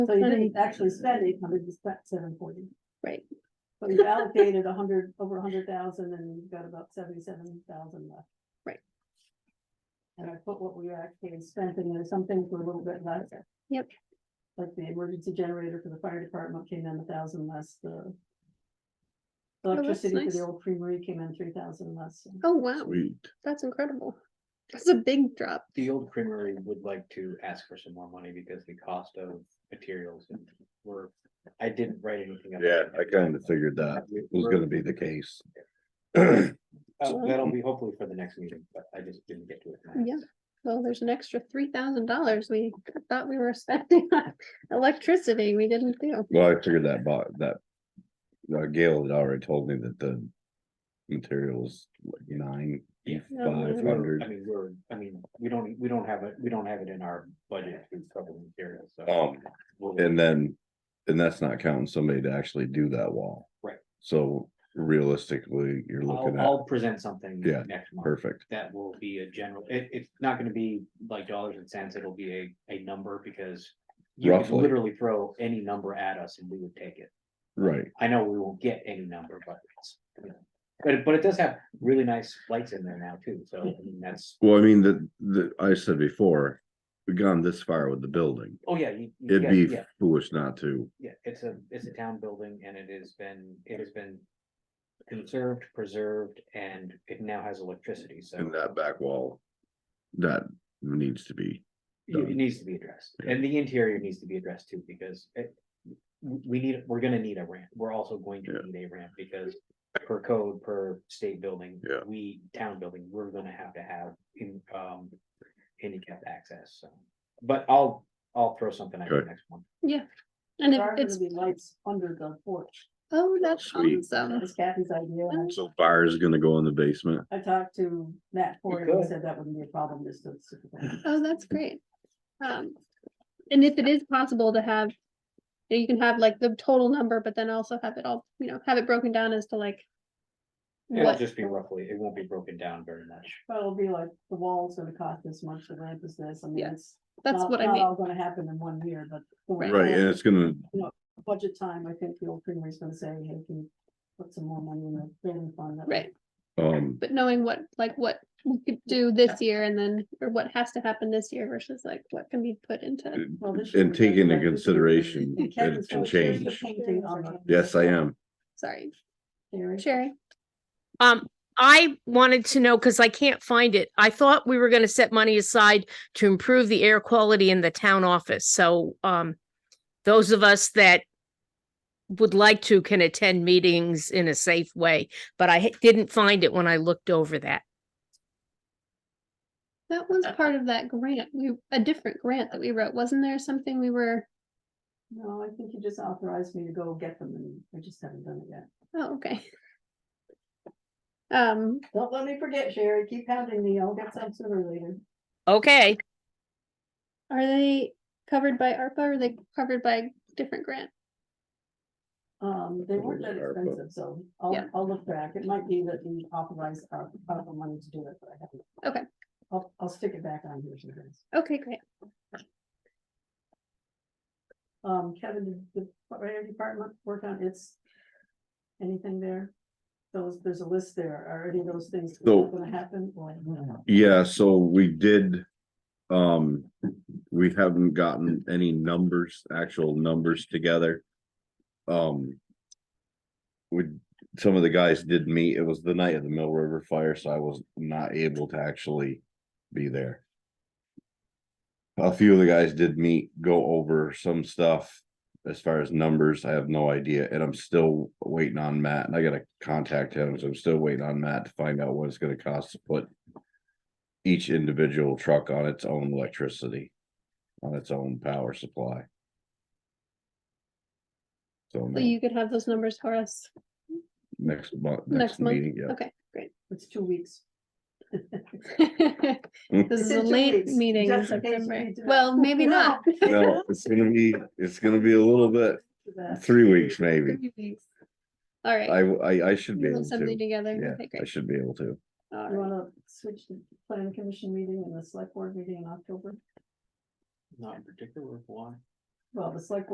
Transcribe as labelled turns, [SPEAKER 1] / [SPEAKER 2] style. [SPEAKER 1] So you
[SPEAKER 2] funny.
[SPEAKER 1] didn't actually spend eight hundred, you spent seven forty.
[SPEAKER 2] Right.
[SPEAKER 1] So you've allocated a hundred, over a hundred thousand and you've got about seventy-seven thousand left.
[SPEAKER 2] Right.
[SPEAKER 1] And I put what we actually spent in there, some things were a little bit less.
[SPEAKER 2] Yep.
[SPEAKER 1] Like the emergency generator for the fire department came in a thousand less, the. Electricity for
[SPEAKER 2] nice.
[SPEAKER 1] the old creamery came in three thousand less.
[SPEAKER 2] Oh, wow,
[SPEAKER 3] Sweet.
[SPEAKER 2] that's incredible. That's a big drop.
[SPEAKER 4] The old creamery would like to ask for some more money because the cost of materials and we're, I didn't write anything. up.
[SPEAKER 3] Yeah, I kind of figured that
[SPEAKER 4] We-
[SPEAKER 3] was
[SPEAKER 4] we're-
[SPEAKER 3] gonna be the case.
[SPEAKER 4] uh, That'll be hopefully for the next meeting, but I just didn't get to it.
[SPEAKER 2] Yeah. Well, there's an extra three thousand dollars we thought we were spending on electricity we didn't do.
[SPEAKER 3] Well, I figured that bought that. Uh, Gail had already told me that the materials like nine,
[SPEAKER 4] Yeah.
[SPEAKER 3] five
[SPEAKER 4] We're- I
[SPEAKER 3] hundred.
[SPEAKER 4] mean, we're, I mean, we don't, we don't have it, we don't have it in our budget to cover materials, so.
[SPEAKER 3] Um,
[SPEAKER 4] we'll-
[SPEAKER 3] and then, and that's not counting somebody to actually do that wall.
[SPEAKER 4] Right.
[SPEAKER 3] So realistically, you're
[SPEAKER 4] I'll,
[SPEAKER 3] looking at,
[SPEAKER 4] I'll present something
[SPEAKER 3] Yeah,
[SPEAKER 4] next month.
[SPEAKER 3] perfect,
[SPEAKER 4] That will be a general, it, it's not gonna be like dollars and cents, it'll be a, a number because. You could
[SPEAKER 3] Roughly.
[SPEAKER 4] literally throw any number at us and we would take it.
[SPEAKER 3] right,
[SPEAKER 4] I know we won't get any number, but it's, you know, but, but it does have really nice lights in there now too, so I mean, that's,
[SPEAKER 3] well, I mean, the, the, I said before. We've gone this far with the building,
[SPEAKER 4] oh yeah. you- you-
[SPEAKER 3] it'd
[SPEAKER 4] yeah,
[SPEAKER 3] be
[SPEAKER 4] Yeah,
[SPEAKER 3] foolish not to,
[SPEAKER 4] yeah, it's a, it's a town building and it has been, it has been conserved, preserved, and it now has electricity, so.
[SPEAKER 3] in that back wall. That needs to be,
[SPEAKER 4] It it
[SPEAKER 3] done.
[SPEAKER 4] needs to be addressed,
[SPEAKER 3] Yeah.
[SPEAKER 4] and the interior needs to be addressed too, because it, w- we need, we're gonna need a ramp, we're also going to
[SPEAKER 3] Yeah.
[SPEAKER 4] need a ramp, because per code, per state building.
[SPEAKER 3] Yeah.
[SPEAKER 4] We, town building, we're gonna have to have in, um, handicap access, so, but I'll, I'll throw something at you
[SPEAKER 3] Okay.
[SPEAKER 4] next month.
[SPEAKER 2] Yeah. And
[SPEAKER 1] There
[SPEAKER 2] if
[SPEAKER 1] are gonna
[SPEAKER 2] it's,
[SPEAKER 1] be lights under the porch.
[SPEAKER 2] oh, that's
[SPEAKER 3] Sweet.
[SPEAKER 1] That
[SPEAKER 2] awesome.
[SPEAKER 1] was Kathy's idea. and I
[SPEAKER 3] so fire is gonna go in the basement.
[SPEAKER 1] I talked to Matt Ford, and
[SPEAKER 4] could.
[SPEAKER 1] he said that wouldn't be a problem, just to.
[SPEAKER 2] Oh, that's great. Um, and if it is possible to have, you know, you can have like the total number, but then also have it all, you know, have it broken down as to like.
[SPEAKER 4] It'll
[SPEAKER 2] What,
[SPEAKER 4] just be roughly, it won't be broken down very much.
[SPEAKER 1] But it'll be like, the wall's gonna cost this much, the ramp is this, I mean,
[SPEAKER 2] Yeah,
[SPEAKER 1] it's.
[SPEAKER 2] that's
[SPEAKER 1] not-
[SPEAKER 2] what I
[SPEAKER 1] not
[SPEAKER 2] mean,
[SPEAKER 1] all Gonna happen in one year, but.
[SPEAKER 2] Right.
[SPEAKER 3] Right, and it's gonna,
[SPEAKER 1] Budget time, I think the old is gonna say, hey, can you put some more money in the building fund? That way
[SPEAKER 2] right?
[SPEAKER 3] um,
[SPEAKER 2] But knowing what, like what we could do this year and then, or what has to happen this year versus like what can be put into.
[SPEAKER 1] Well, this year
[SPEAKER 3] and
[SPEAKER 1] we got
[SPEAKER 3] take into
[SPEAKER 1] that.
[SPEAKER 3] consideration
[SPEAKER 1] And
[SPEAKER 3] and
[SPEAKER 1] Kevin's
[SPEAKER 3] and
[SPEAKER 1] gonna show you the
[SPEAKER 3] change.
[SPEAKER 1] painting on the-
[SPEAKER 3] Yes, I am.
[SPEAKER 2] Sorry,
[SPEAKER 1] There it is.
[SPEAKER 2] Sherry.
[SPEAKER 5] Um, I wanted to know, because I can't find it. I thought we were gonna set money aside to improve the air quality in the town office, so, um, those of us that would like to can attend meetings in a safe way, but I ha- didn't find it when I looked over that.
[SPEAKER 2] That was part of that grant, we, a different grant that we wrote, wasn't there something we were,
[SPEAKER 1] No, I think you just authorized me to go get them, and I just haven't done it yet.
[SPEAKER 2] oh, okay. Um,
[SPEAKER 1] Don't let me forget, Sherry, keep pounding me, I'll get some sooner or later.
[SPEAKER 5] Okay,
[SPEAKER 2] are they covered by ARPA or are they covered by different grant?
[SPEAKER 1] Um, they weren't that
[SPEAKER 3] Probably ARPA.
[SPEAKER 1] expensive, so I'll,
[SPEAKER 2] Yeah.
[SPEAKER 1] I'll look back. It might be that we authorized our, our money to do it, but I haven't.
[SPEAKER 2] Okay.
[SPEAKER 1] I'll, I'll stick it back on here sometimes.
[SPEAKER 2] Okay, great.
[SPEAKER 1] Um, Kevin, did the fire department work on its, anything there? Those, there's a list there. Are any of those things
[SPEAKER 3] No.
[SPEAKER 1] gonna happen? Well,
[SPEAKER 3] Yeah, so we did, um, we haven't gotten any numbers, actual numbers together. Um. We, some of the guys did meet, it was the night of the Mill River Fire, so I was not able to actually be there. A few of the guys did meet, go over some stuff as far as numbers, I have no idea, and I'm still waiting on Matt, and I gotta contact him, so I'm still waiting on Matt to find out what it's gonna cost to put each individual truck on its own electricity, on its own power supply. So
[SPEAKER 2] So you could have those numbers for us.
[SPEAKER 3] next month,
[SPEAKER 2] Next
[SPEAKER 3] next
[SPEAKER 2] month?
[SPEAKER 3] meeting, yeah.
[SPEAKER 2] Okay, great.
[SPEAKER 1] It's two weeks.
[SPEAKER 2] This
[SPEAKER 3] Hmm.
[SPEAKER 1] It's
[SPEAKER 2] is a
[SPEAKER 1] in two
[SPEAKER 2] late
[SPEAKER 1] weeks,
[SPEAKER 2] meeting in
[SPEAKER 1] just in case you
[SPEAKER 2] September.
[SPEAKER 1] need to know.
[SPEAKER 2] Well, maybe not.
[SPEAKER 3] No, it's gonna be, it's gonna be a little bit,
[SPEAKER 1] For that.
[SPEAKER 3] three weeks maybe.
[SPEAKER 2] Three weeks. All right.
[SPEAKER 3] I, I, I should be
[SPEAKER 2] We'll have
[SPEAKER 3] able
[SPEAKER 2] Something
[SPEAKER 3] to.
[SPEAKER 2] together.
[SPEAKER 3] Yeah,
[SPEAKER 2] Okay,
[SPEAKER 3] I
[SPEAKER 2] great.
[SPEAKER 3] should be able to.
[SPEAKER 2] All
[SPEAKER 1] You
[SPEAKER 2] right.
[SPEAKER 1] wanna switch the planning commission meeting and the select board meeting in October?
[SPEAKER 4] Not in particular, why?
[SPEAKER 1] Well, the select